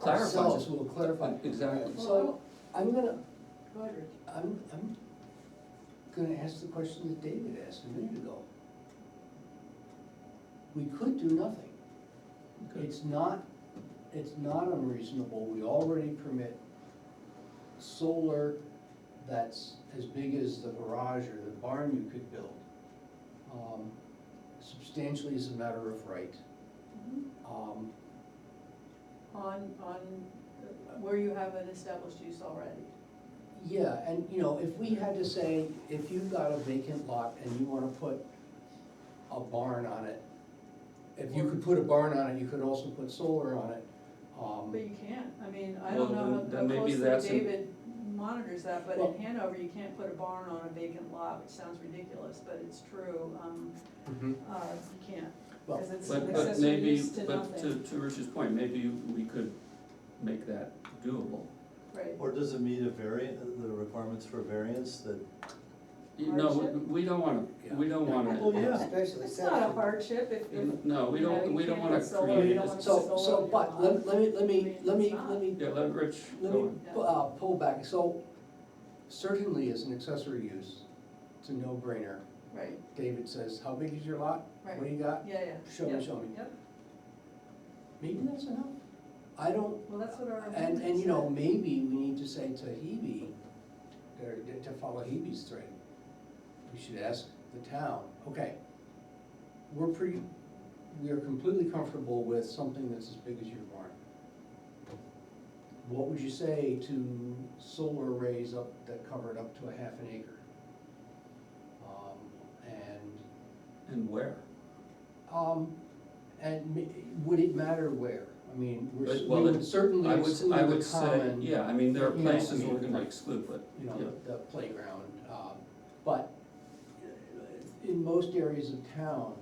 clarifies it. ourselves will clarify. Exactly. So I'm gonna, Go ahead, Rich. I'm, I'm gonna ask the question that David asked a minute ago. We could do nothing. Okay. It's not, it's not unreasonable, we already permit solar that's as big as the garage or the barn you could build. Um, Substantially is a matter of right. Mm-hmm. Um, On, on uh, where you have an established use already. Yeah, and you know, if we had to say, if you've got a vacant lot and you wanna put a barn on it, if you could put a barn on it, you could also put solar on it. um, But you can't, I mean, I Well, don't know then- then how- maybe how that's closely a- David monitors that, but Well- in Hanover, you can't put a barn on a vacant lot, which sounds ridiculous, but it's true. Um, uh, you can't, Well, because it's an But, but accessory maybe, use to but to, nothing, to Rich's point, maybe we could make that doable. right? Or does it meet a variant, the requirements for variance that, You- No, Hardship? we- we don't wanna, we don't well, wanna, yeah, Especially It's not a section, hardship if, if. no, we you know, don't, you we don't can't wanna put solar, you create don't it. wanna- So, so, but, let, let me, let me, let me, let me, Yeah, let Rich let go me, on. Yeah. uh, pull back, so certainly as an accessory use, it's a no-brainer. Right, David says, how big is your lot? What do Right. you got? yeah, yeah. Show yeah, me, show me. Yep, Maybe that's enough. I don't, well, that's what our. And, ordinance and you know, said. maybe we need to say to Hebe, or to follow Hebe's thread, we should ask the town, okay, we're pretty, we are completely comfortable with something that's as big as your barn. What would you say to solar arrays up, that covered up to a half an acre? Um, And And where? um, and ma- would it matter where? I mean, we're, s- But- we well, would certainly I would, s- exclude I would the say, common, you yeah, I mean, there are you know, I places we're mean, gonna exclude, but, know, yeah, the playground, um, but uh, in most areas of town,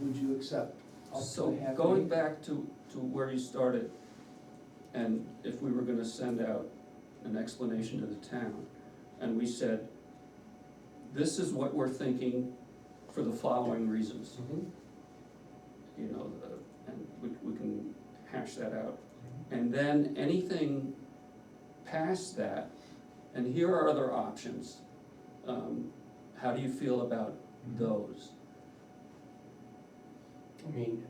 would you accept up So to half going acre? back to, to where you started, and if we were gonna send out an explanation to the town, and we said, this is what we're thinking for the following reasons, Mhm. you know, the- and we, we can hash that out. And then anything past that, and here are other options, um, how do you feel about those? I mean,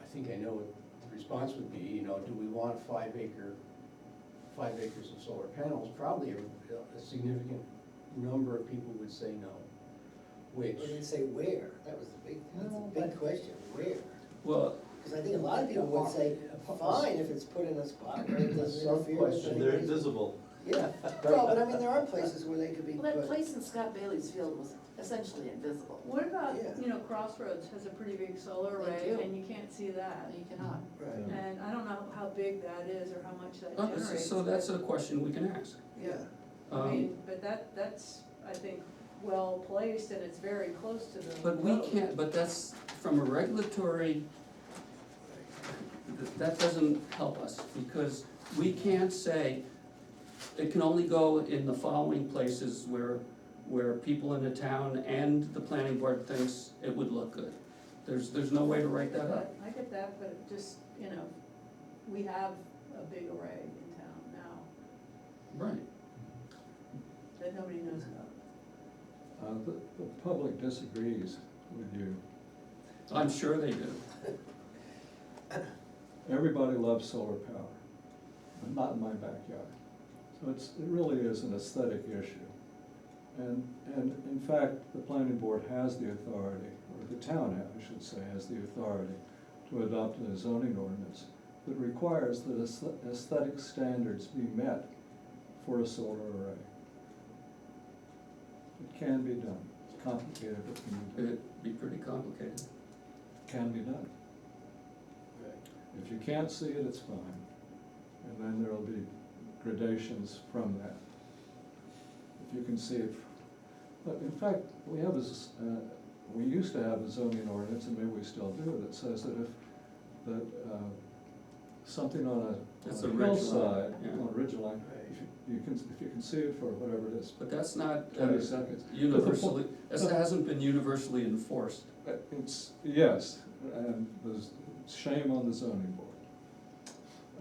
I think I know what the response would be, you know, do we want five acre, five acres of solar panels? Probably a, a significant number of people would say no, we which. didn't say where, that was the big, that's No, the but- big question, where? Well, Because I think a lot of people would say, fine, if it's put in a spot where it doesn't interfere with Sub-question. and they're anything. invisible? Yeah, well, but I mean, there are places where they could be Well, put. that place in Scott Bailey's field was essentially invisible. What about, Yeah. you know, Crossroads has a pretty big solar They array do. and you can't see that. You cannot. Right, And I don't know how big that is or how much that uh, so- generates. so that's a question we can ask. yeah, I Um, mean, but that, that's, I think, well placed and it's very close to the. But we road. can't, but that's, from a regulatory, th- that doesn't help us, because we can't say, it can only go in the following places where, where people in the town and the planning board thinks it would look good. There's, there's no way to write that up. I get that, but just, you know, we have a big array in town now Right. that nobody knows about. Uh, the, the public disagrees with you. I'm sure they do. Everybody loves solar power, but not in my backyard. So it's, it really is an aesthetic issue. And, and in fact, the planning board has the authority, or the town, I should say, has the authority to adopt a zoning ordinance that requires that aesthe- aesthetic standards be met for a solar array. It can be done. It's complicated, but it can be done. It'd be pretty complicated. Can be done. right. If you can't see it, it's fine, and then there'll be gradations from that. If you can see it, but in fact, we have a, s- uh, we used to have a zoning ordinance, and maybe we still do, that says that if, that, uh, something on a It's on a a ridge line, hillside, yeah. on a ridge line, Right. if you- you can, if you can see it for whatever it is, But that's not uh, 20 seconds. universally, this hasn't been universally enforced. Uh, It's, yes, and there's shame on the zoning board.